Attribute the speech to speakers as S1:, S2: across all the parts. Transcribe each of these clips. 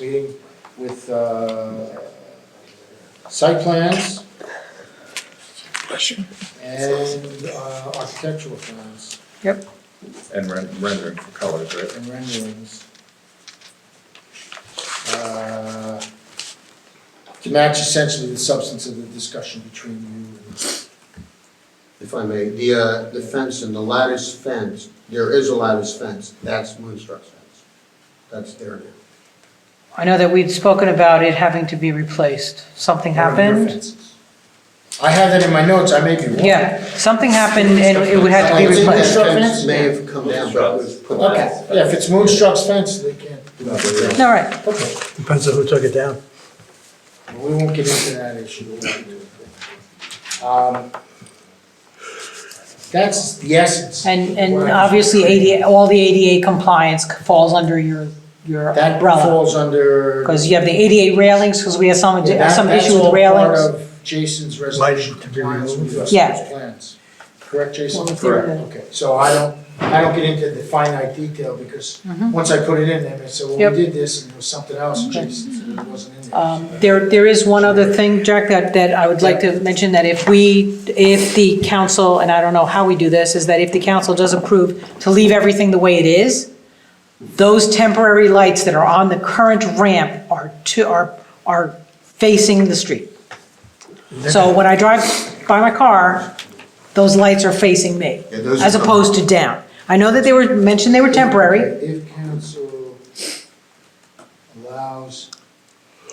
S1: meeting with uh, site plans and uh, architectural plans
S2: Yep.
S3: And ren- rendering for colors, right?
S1: and renderings. uh, To match essentially the substance of the discussion between you and.
S4: If I may, the, uh, the fence and the lattice fence, there is a lattice fence, that's Moonstruck's fence. That's there now.
S2: I know that we'd spoken about it having to be replaced. Something happened.
S1: I have that in my notes, I may be wrong.
S2: Yeah, something happened and it would have to be
S1: It's in the
S2: replaced.
S1: short
S4: Fence
S1: fence?
S4: may have come down, but it was put back.
S1: Okay, yeah, if it's Moonstruck's fence, they can't do that.
S2: All right,
S1: Okay,
S5: Depends on who took it down.
S1: well, we won't get into that issue. Um, That's the essence.
S2: and, and
S1: Right.
S2: obviously ADA, all the ADA compliance falls under your, your
S1: That
S2: umbrella.
S1: falls under.
S2: Because you have the ADA railings, because we had some,
S1: Yeah, that-
S2: some
S1: that's
S2: issue with
S1: all
S2: railings.
S1: part of Jason's
S5: Lighting
S1: resolution
S5: to be
S1: compliance with
S5: removed.
S1: US
S2: Yeah.
S1: Coast plans. Correct, Jason?
S2: Well, it's in Correct. the-
S1: Okay, so I don't, I don't get into the finite detail because
S2: Mhm.
S1: once I put it in, they may say, well,
S2: Yep.
S1: we did this and it was something else, and
S2: Okay.
S1: Jason said it wasn't in there.
S2: Um, There, there is one other thing, Jack, that, that I would like to mention, that if we, if the council, and I don't know how we do this, is that if the council does approve to leave everything the way it is, those temporary lights that are on the current ramp are to, are, are facing the street. So when I drive by my car, those lights are facing me,
S4: Yeah, those are
S2: as opposed to down. I know that they were, mentioned they were temporary,
S1: If council allows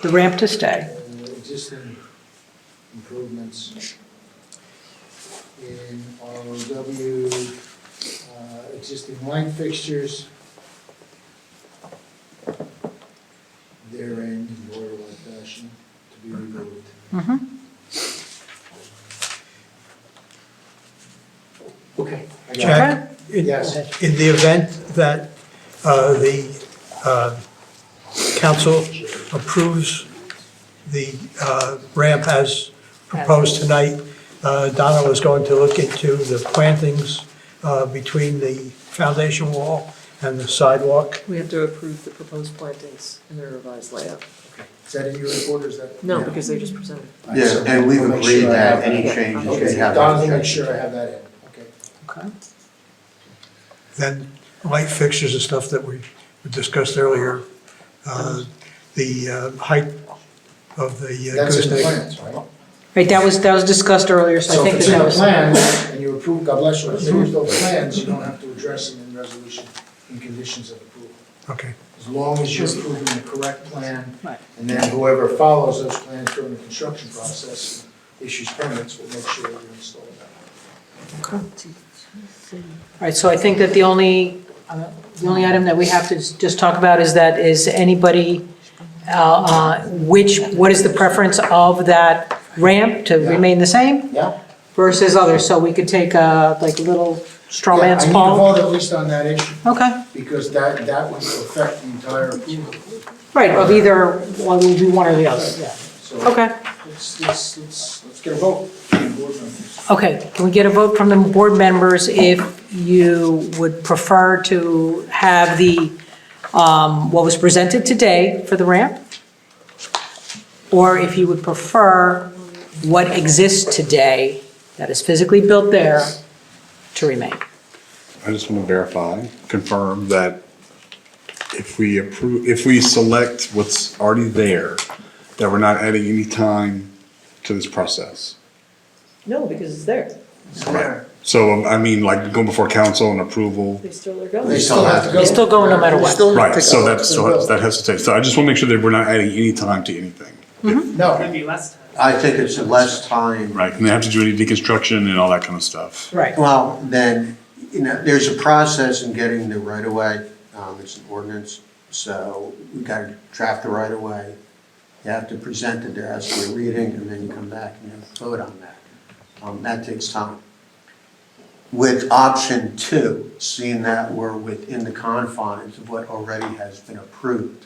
S2: the ramp to stay.
S1: uh, existing improvements in ROW, uh, existing light fixtures therein in order-like fashion to be removed.
S2: Mm-hmm.
S1: Okay. I got it.
S5: Jack, In
S1: Yes.
S5: in the event that uh, the uh, council approves the uh, ramp as proposed tonight, uh, Donna was going to look into the plantings uh, between the foundation wall and the sidewalk.
S6: We have to approve the proposed plantings in their revised layout.
S1: Is that in your report or is that?
S6: No, because they just presented.
S7: Yeah, and we've
S1: I'll make
S7: agreed
S1: sure I
S7: that
S1: have that.
S7: any
S6: Yeah,
S7: changes
S6: okay.
S7: we have.
S1: Don, will make sure I have that in, okay.
S2: Okay.
S5: Then light fixtures and stuff that we discussed earlier, uh, the uh, height of the uh,
S1: That's in the
S5: gooseneck.
S1: plans, right?
S2: Right, that was, that was discussed earlier, so I
S1: So if
S2: think
S1: it's
S2: that
S1: in
S2: that
S1: the
S2: was.
S1: plans and you approve, God bless you, approve those plans, you don't have to address them in resolution and conditions of approval.
S5: Okay.
S1: As long as you're approving the correct plan,
S2: Right.
S1: and then whoever follows those plans during the construction process, issues permits, will make sure you're installed.
S2: All right, so I think that the only, uh, the only item that we have to s- just talk about is that, is anybody, uh, uh, which, what is the preference of that ramp to
S1: Yeah.
S2: remain the same
S1: Yeah?
S2: versus others? So we could take a, like, a little straw
S1: Yeah,
S2: man's
S1: I
S2: poll?
S1: need to vote at least on that issue,
S2: Okay,
S1: because that, that would affect the entire approval.
S2: right, of either, well, we'll do one or the other, yeah.
S1: So
S2: Okay,
S1: let's, let's, let's, let's get a vote. board members.
S2: okay, can we get a vote from the board members if you would prefer to have the, um, what was presented today for the ramp? Or if you would prefer what exists today that is physically built there to remain.
S8: I just want to verify, confirm that if we approve, if we select what's already there, that we're not adding any time to this process.
S6: No, because it's there.
S1: There.
S8: So, um, I mean, like going before council and approval.
S6: They still are
S1: They
S6: going.
S1: still have to go.
S2: It's still going no matter what.
S1: They still have
S8: Right,
S1: to
S8: so
S1: go.
S8: that's, so that has to take, so I just want to make sure that we're not adding any time to anything.
S1: No,
S4: I think it's less time,
S8: Right, and they have to do any deconstruction and all that kind of stuff.
S2: Right,
S4: well, then, you know, there's a process in getting the right of way, um, it's an ordinance, so we gotta draft the right of way. You have to present it, there has to be a reading, and then you come back and you vote on that. Um, that takes time. With option two, seeing that we're within the confines of what already has been approved,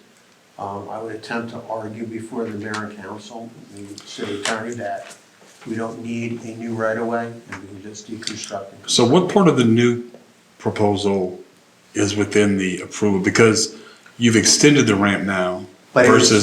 S4: um, I would attempt to argue before the mayor and council, and the city attorney, that we don't need a new right-of-way, and we can just deconstruct it.
S8: So what part of the new proposal is within the approval? Because you've extended the ramp now
S4: But it was-
S8: Versus